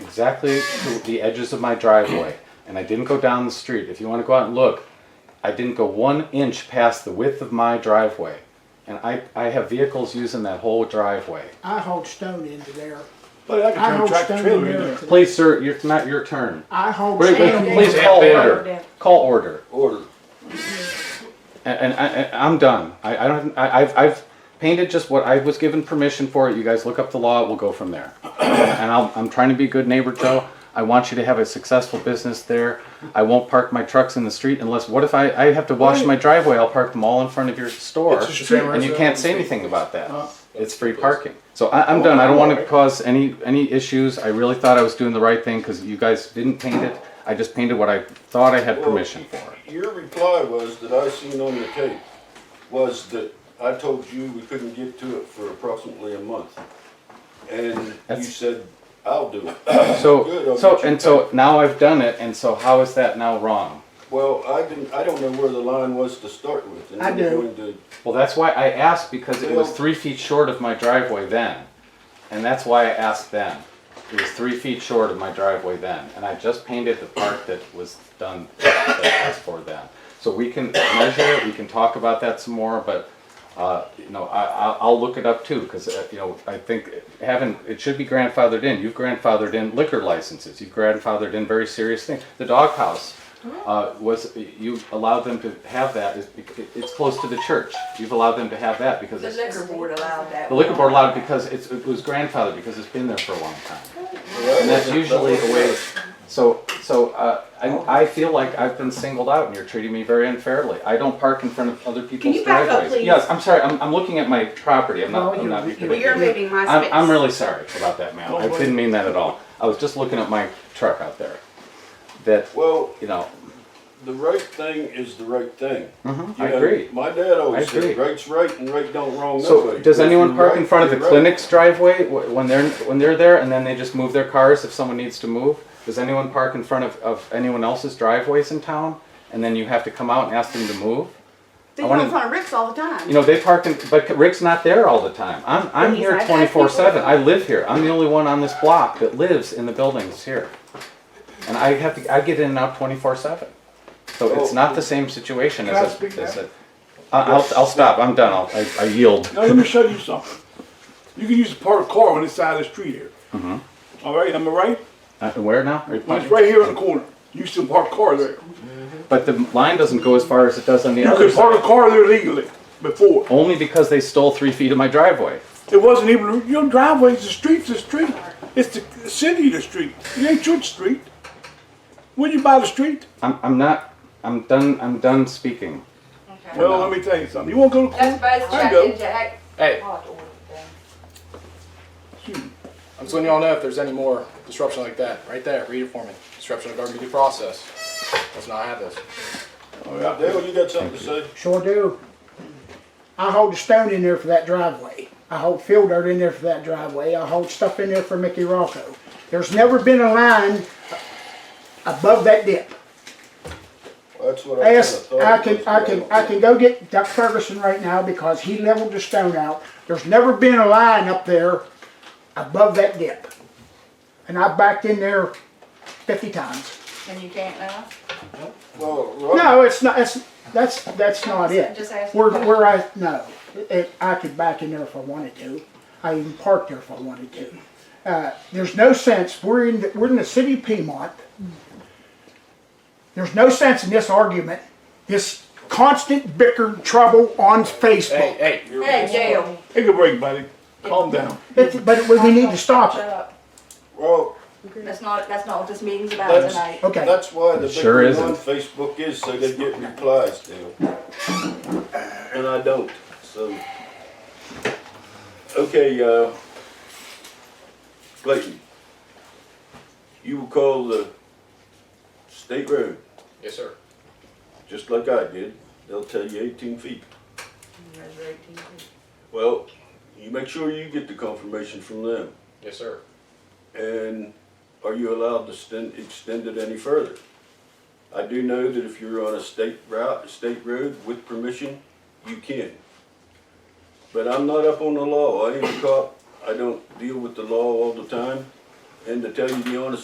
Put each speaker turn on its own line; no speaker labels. exactly to the edges of my driveway, and I didn't go down the street. If you want to go out and look, I didn't go one inch past the width of my driveway, and I, I have vehicles using that whole driveway.
I hauled stone into there.
But I
I
can turn
hauled
tractor
stone in
trailer in
there.
there.
today.
Please, sir, you're, it's not your turn.
I hauled
Wait,
stone
wait,
in
please
there.
call
Yeah.
order. Call order.
Order.
And, and I, and I'm done. I, I don't, I, I've, I've painted just what I was given permission for. You guys look up the law, we'll go from there. And I'll, I'm trying to be a good neighbor, Joe. I want you to have a successful business there. I won't park my trucks in the street unless, what if I, I have to wash my driveway? I'll park them all in front of your store.
It's a street.
And you can't say anything about that. It's free parking. So I, I'm done. I don't want to cause any, any issues. I really thought I was doing the right thing because you guys didn't paint it. I just painted what I thought I had permission for.
Your reply was that I seen on the tape was that I told you we couldn't get to it for approximately a month. And you
That's-
said, I'll do it. Good,
So,
I'll
so,
get you
and so now I've done it, and so how is that now wrong?
Well, I didn't, I don't know where the line was to start with. and
I
I'm
do.
going to-
Well, that's why I asked, because it was
Well-
three feet short of my driveway then. And that's why I asked then. It was three feet short of my driveway then, and I just painted the part that was done, that I asked for then. So we can measure it, we can talk about that some more, but, uh, you know, I, I, I'll look it up too, because, you know, I think having, it should be grandfathered in. You've grandfathered in liquor licenses, you've grandfathered in very serious things. The doghouse, uh, was, you allowed them to have that, is bec- it's close to the church. You've allowed them to have that because
The
it's.
liquor board allowed that.
The liquor board allowed it because it's, it was grandfathered because it's been there for a long time.
Well, that
And that's
wasn't- that
usually the
wasn't
way,
it.
so, so, uh, I, I feel like I've been singled out and you're treating me very unfairly. I don't park in front of other people's
you back up,
driveways.
please?
Yes, I'm sorry, I'm, I'm looking at my property, I'm
No,
not, I'm
you-
not.
you-
Well,
being-
you're moving my
I'm,
space.
I'm really sorry about that, ma'am. I
Don't worry.
didn't mean that at all. I was just looking at my truck out there. That,
Well,
you know,
the right thing is the right thing. You
Mm-hmm, I
know,
agree.
My dad always
I
said,
agree.
right's right and right don't wrong
So
nobody.
does
If
anyone
you're
park
right,
in front of
you're
the
right.
clinic's driveway wh- when they're, when they're there and then they just move their cars if someone needs to move? Does anyone park in front of, of anyone else's driveways in town and then you have to come out and ask them to move?
They
I
go
wanna-
in front of Rick's all the time.
You know, they park in, but Rick's not there all the time. I'm, I'm
he's
here
not-
twenty-four seven. I live here. I'm the only one on this block that lives in the buildings here. And I have to, I get in and out twenty-four seven. So it's
Oh.
not the same situation
Can I
as
speak
a, as
now?
a. I- I'll, I'll stop. I'm done. I'll, I- I yield.
Now let me show you something. You can use a parked car on this side of the street here. All right, am I right?
Uh, Where now? Are you
When it's right here in the corner, you should park a car there.
But the line doesn't go as far as it does on the
You
other
could
side.
park a car there legally before.
Only because they stole three feet of my driveway.
It wasn't even your driveway. The street's the street. It's the city the street. It ain't your street. When you buy the street,
I'm, I'm not. I'm done. I'm done speaking.
well, let me tell you something. You won't go to court.
That's both
I
Jack
go.
and Jack. Oh,
Hey, Hmm.
Hot order thing.
I'm just letting y'all know if there's any more disruption like that. Right there, read it for me. Disruption of government due process. Let's not have this.
All right, there.
Dale, you got something to say?
Sure do. I hauled stone in there for that driveway. I hauled field dirt in there for that driveway. I hauled stuff in there for Mickey Rocco. There's never been a line above that dip.
That's what I kinda
Ask,
thought.
I
it
can,
was,
I
but
can,
don't
I
know.
can go get Duck Ferguson right now because he leveled the stone out. There's never been a line up there above that dip. And I backed in there fifty times.
And you can't now?
Well, Rob,
No, it's not, it's, that's, that's not it.
Just asking.
Where, where I, no, it, I could back in there if I wanted to. I even parked there if I wanted to. Uh, there's no sense, we're in, the- we're in the city of Piedmont. There's no sense in this argument, this constant bicker trouble on
Hey,
Facebook.
hey, you're
Hey, Dale.
Take a break, buddy. Calm down.
It's- But we we need to stop
Shut
it,
up.
well,
That's not, that's not what this meeting's about
That's-
tonight.
okay.
that's why the
It sure
big
isn't.
thing on Facebook is so they get replies, Dale. And I don't, so. Okay, uh, Clayton, you will call the state road,
Yes, sir.
just like I did. They'll tell you eighteen feet.
There's your 18.
Well, you make sure you get the confirmation from them.
Yes, sir.
And are you allowed to sten- extend it any further? I do know that if you're on a state route, state road with permission, you can. But I'm not up on the law, I ain't a cop, I don't deal with the law all the time. And to tell you the honest